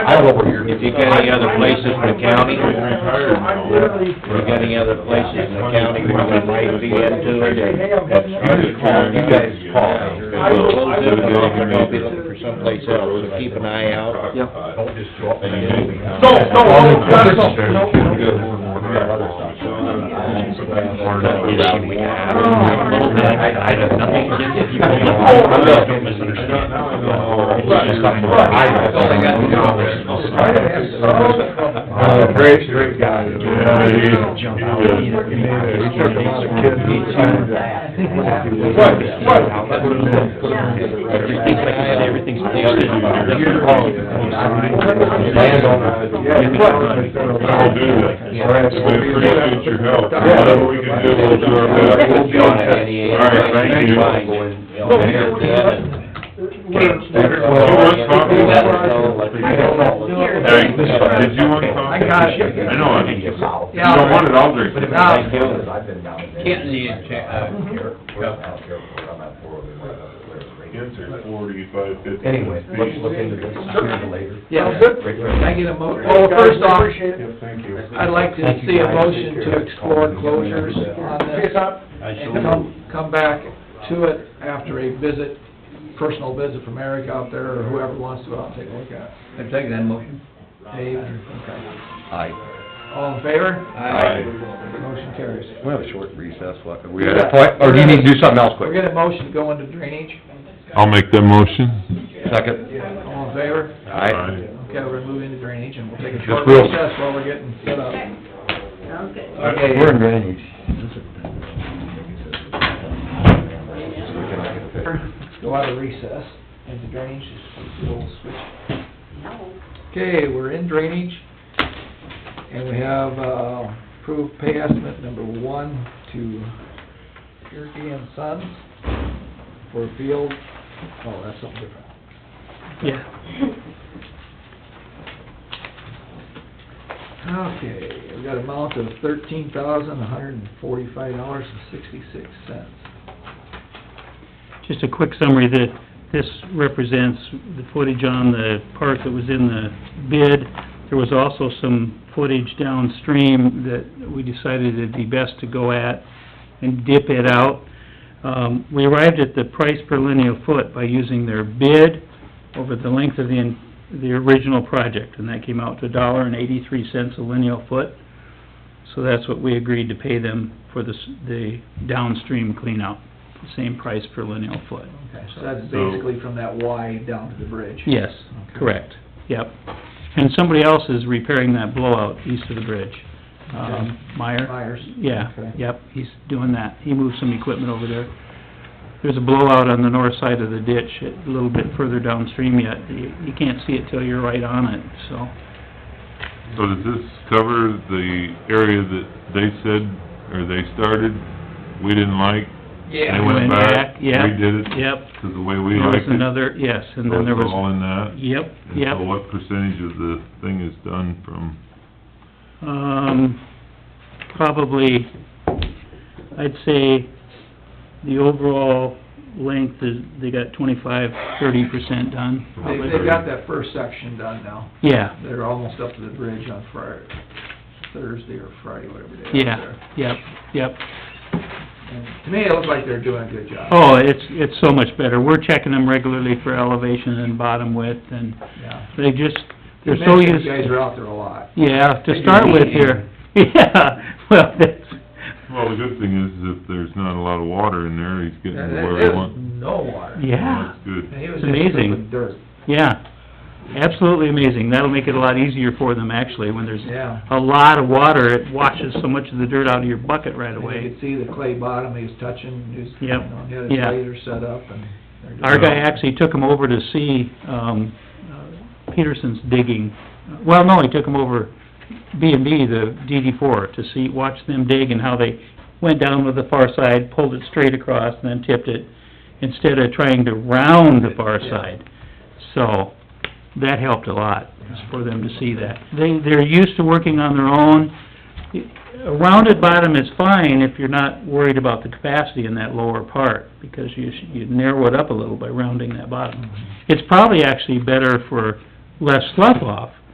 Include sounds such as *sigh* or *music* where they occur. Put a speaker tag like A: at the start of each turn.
A: all over here.
B: If you got any other places in the county, if you got any other places in the county where we might be into it, and that's,
A: You call- you guys call.
B: we'll do it, I'll be looking for someplace else, so keep an eye out.
A: Don't just show up and
C: No, no, no, no, no,
A: uh, I, I have nothing against you.
C: I'm
A: I
C: not-
A: don't misunderstand.
C: Right, right.
A: That's all I got to do.
C: Uh, great, great guy.
D: Yeah, he- he
C: Jump out.
D: did.
C: He
D: took a lot of kids and signed them.
C: Right, right.
D: Put 'em in, put 'em in.
B: Everything's like I said, everything's on the other side.
D: That'll do that. We appreciate your help.
C: Yeah.
D: Whatever we can do, we'll do our best.
B: We'll be on it, Eddie.
D: All right, thank you.
B: Fine, you know, here's that. Let us know what you
D: Hey, did you want coffee?
C: I got it.
D: I know, I think you don't want it, I'll drink it.
A: I've been down there.
E: Can't see it, check, uh,
A: Here, we're out here, I'm at four, we're out there.
D: Answer forty-five fifty.
A: Anyway, let's look into this sooner or later.
E: Yeah.
A: Great,
E: Can I
A: great.
E: get a mo, well, first off,
D: Yeah, thank you.
E: I'd like to see a motion to explore closures on this and come, come back to it after a visit, personal visit from Eric out there or whoever wants to out and take a look at it.
F: I take that motion.
E: Dave, okay.
F: Aye.
E: All in favor?
D: Aye.
E: Motion carries.
A: We have a short recess, what, we got a point, or do you need to do something else
E: We're
A: quick?
E: gonna motion to go into drainage.
D: I'll make that motion.
A: Second?
E: All in favor?
A: Aye.
E: Okay, we're moving to drainage and we'll take a
A: Just
E: short
A: real-
E: recess while we're getting set up.
G: Sounds good.
E: Okay.
A: We're in drainage.
E: Go out of recess into drainage, just a little switch. Okay, we're in drainage, and we have, uh, approved pay estimate number one to Gerke and Sons for field, oh, that's something different. Yeah. Okay, we got amount of thirteen thousand, one hundred and forty-five dollars and sixty-six cents.
H: Just a quick summary that this represents the footage on the part that was in the bid. There was also some footage downstream that we decided it'd be best to go at and dip it out. Um, we arrived at the price per linear foot by using their bid over the length of the, the original project, and that came out to a dollar and eighty-three cents a linear foot. So that's what we agreed to pay them for this, the downstream cleanout, the same price per linear foot.
E: Okay, so that's
D: So-
E: basically from that Y down to the bridge?
H: Yes, correct, yep. And somebody else is repairing that blowout east of the bridge. Um, Meyer?
E: Myers.
H: Yeah,
E: Okay.
H: yep, he's doing that. He moved some equipment over there. There's a blowout on the north side of the ditch, a little bit further downstream yet. You, you can't see it till you're right on it, so.
D: So does this cover the area that they said, or they started, we didn't like?
F: Yeah.
D: They went
H: Went
D: back,
H: back, yeah.
D: redid it?
H: Yep.
D: Because the way we
H: There was
D: liked it?
H: another, yes, and then there
D: So it's all
H: was,
D: in that?
H: yep, yep.
D: And so what percentage of the thing is done from,
H: Um, probably, I'd say the overall length is, they got twenty-five, thirty percent done.
E: They, they've got that first section done now.
H: Yeah,
E: They're almost up to the bridge on Friday, Thursday or Friday, whatever day. it is
H: yeah,
E: there.
H: yep, yep.
E: And To me, it looks like they're doing a good job.
H: Oh, it's, it's so much better. We're checking them regularly for elevation and bottom width, and
E: Yeah.
H: they just,
E: You
H: they're so
E: mentioned
H: used...
E: You guys are out there a lot.
H: Yeah, to start with here, *laughs* yeah, well, that's,
D: well, the good thing is if there's not a lot of water in there, he's getting
E: And
D: to
E: there-
D: where
E: there's
D: he wants.
E: no water.
H: yeah.
D: That's good.
E: And he was just
H: It's amazing.
E: filled with dirt.
H: Yeah, absolutely amazing. That'll make it a lot easier for them actually, when there's
E: Yeah.
H: a lot of water, it washes so much of the dirt out of your bucket right
E: And You
H: away.
E: could see the clay bottom he was touching, he was, you
H: Yep,
E: know, he had his
H: yeah.
E: laser set up and. they're doing-
H: Our guy actually took him over to see, um, uh, Peterson's digging. Well, no, he took him over B and B, the DD four, to see, watch them dig and how they went down with the far side, pulled it straight across and then tipped it instead of trying to round the far
E: Yeah.
H: side. So, that helped a lot, is for them to see that. They, they're used to working on their own. A rounded bottom is fine if you're not worried about the capacity in that lower part, because you, sh- you narrow it up a little by rounding that bottom. It's probably actually better for left slough off.